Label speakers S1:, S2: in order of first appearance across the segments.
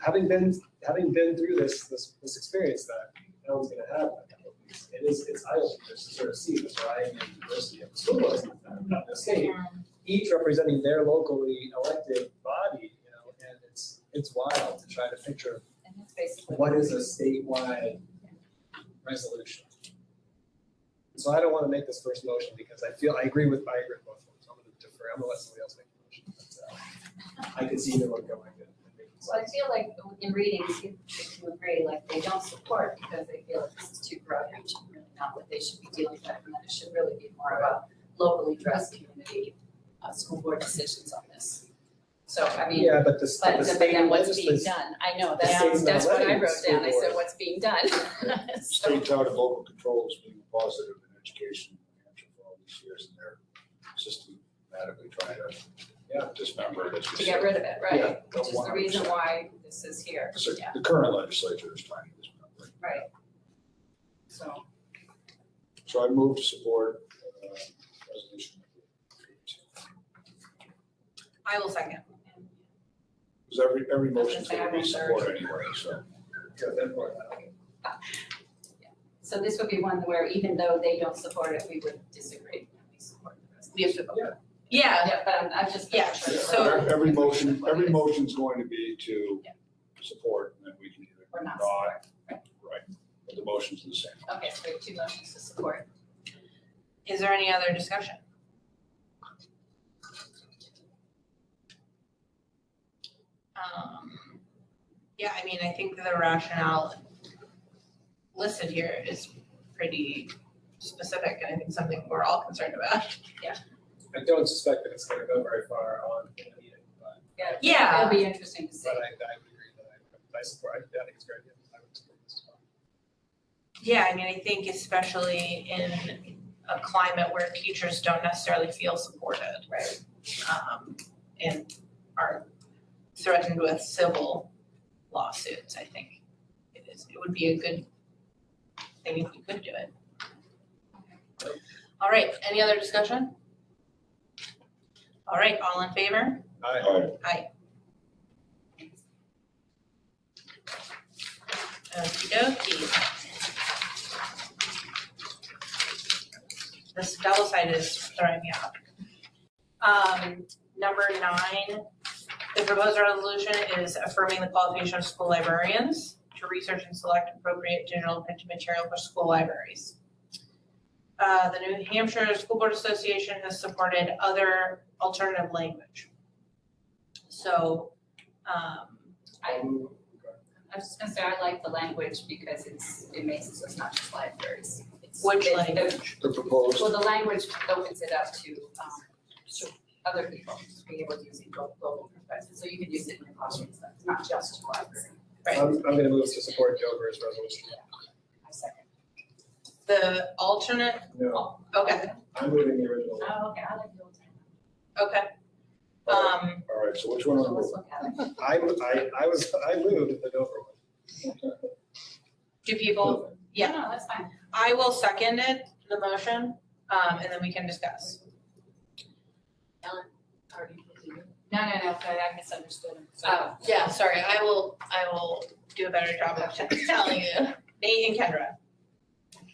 S1: having been, having been through this, this, this experience that no one's gonna have, it is, it's eye-opening to sort of see the variety and diversity of the school boards in the state. Each representing their locally elected body, you know, and it's, it's wild to try to picture
S2: And that's basically.
S1: what is a statewide resolution. So I don't wanna make this first motion because I feel, I agree with, I agree with both of them, so I'm gonna defer, I'm gonna let somebody else make the motion. but, uh, I could see them going and and making
S2: So I
S1: sense.
S2: feel like in reading, you can agree, like they don't support because they feel like this is too broad reach, and really not what they should be dealing with. And that it should really be more of a locally dressed community, uh, school board decisions on this. So, I mean,
S1: Yeah, but the, s-
S2: but
S1: the
S2: but
S1: state
S2: then what's being
S1: legislators,
S2: done? I know,
S1: the
S2: that's,
S1: state's not
S2: that's what I
S1: letting
S2: wrote
S1: school
S2: down. I said,
S1: board-
S2: what's being done? So-
S3: State out of local control is being positive in education in New Hampshire for all these years, and they're systematically trying
S1: Yeah.
S3: to dismember it. as you
S2: to get
S3: said.
S2: rid of it,
S3: Yeah,
S2: right? Which is the
S3: 100%.
S2: reason why this is here,
S3: So
S2: yeah,
S3: The current legislature is trying to dismember it.
S2: right. So,
S3: So I move to support uh, resolution number eight.
S2: I will second.
S3: Because every, every
S2: was
S3: motion's
S2: gonna say,
S3: going to
S2: I'm
S3: be
S2: on third.
S3: support anyway, so.
S1: yeah, then what?
S2: So this would be one where even though they don't support it, we would disagree, we support the rest.
S4: We have to vote.
S2: Yeah, yeah, but I'm, I'm just.
S4: Yeah, so-
S3: Every- Every motion, every motion's going to be to
S2: Yeah.
S3: support, and then we can either
S2: Or not
S3: not, right, but the motion's the same.
S2: Okay, so we have two motions to support.
S4: Is there any other discussion? Um, yeah, I mean, I think the rationale listed here is pretty specific and I think something we're all concerned about.
S1: I don't suspect that it's gonna go very far on in the meeting, but,
S4: Yeah.
S2: It'll be interesting to see.
S1: but I, I would agree that I, I support, I think it's a great, idea. I would support this as well.
S4: Yeah, I mean, I think especially in a climate where teachers don't necessarily feel supported.
S2: Right.
S4: um, and are threatened with civil lawsuits, I think. It is, it would be a good thing if we could do it. All right, any other discussion? All right, all in favor?
S1: I,
S3: Aye.
S4: Okey dokey. This double side is throwing me off. Um, number nine, the proposed resolution is affirming the qualification of school librarians to research and select appropriate digital and printed material for school libraries. Uh, the New Hampshire School Board Association has supported other alternative language. So, um,
S2: I,
S1: Ooh, okay.
S2: I was just gonna say, I like the language because it's, it makes it so it's not just libraries. It's-
S4: Which
S2: it-
S4: language?
S3: The proposed
S2: Well, the language opens it up to, um, to other people, to be able to use it global, global perspective. So you can use it in your classroom, so it's not just your library.
S4: Right.
S1: I'm, I'm gonna move to support Dover's resolution.
S2: I second.
S4: the alternate,
S1: No,
S4: okay,
S1: I'm moving the original.
S2: Oh, okay, I like the old time.
S4: okay, um,
S3: All right, so which one?
S2: So
S3: are we-
S2: let's look at it.
S1: I, I, I was, I moved the Dover one.
S4: do people, Yeah.
S2: No, no, that's fine.
S4: I will second it, the motion, um, and then we can discuss.
S2: No, no, no, sorry, I misunderstood.
S4: Uh, yeah, sorry, I will, I will do a better job of telling you, Nate and Kendra.
S1: Can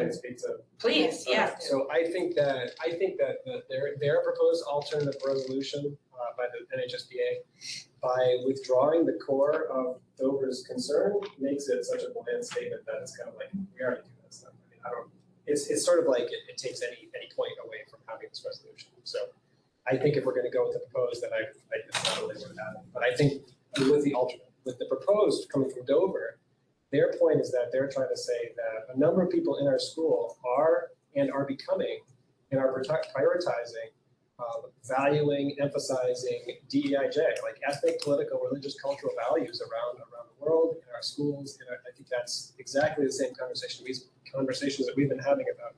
S4: Um,
S1: I speak to?
S4: please, yeah,
S1: Okay, So I think that, I think that the- their, their proposed alternative resolution uh, by the NHSBA, by withdrawing the core of Dover's concern, makes it such a bland statement that it's kind of like, we already do that stuff. I mean, I don't, it's, it's sort of like it, it takes any, any point away from having this resolution. So I think if we're gonna go with the proposed, then I, I it's not really what happened. But I think with the alternate, with the proposed coming from Dover, their point is that they're trying to say that a number of people in our school are and are becoming and are protect- prioritizing, um, valuing, emphasizing DEIJ, like ethnic, political, religious, cultural values around around the world in our schools. And I, I think that's exactly the same conversation we conversations that we've been having about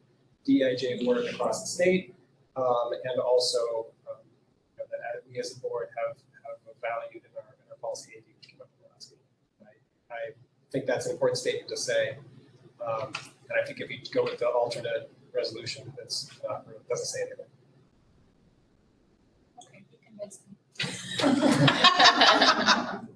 S1: DEIJ work across the state, um, and also um, you know, that we as a board have have valued in our in our policy AD we came up with last week. I, I think that's an important statement to say. Um, and I think if you go with the alternate resolution that's not, doesn't say anything.
S2: Okay, you convinced me.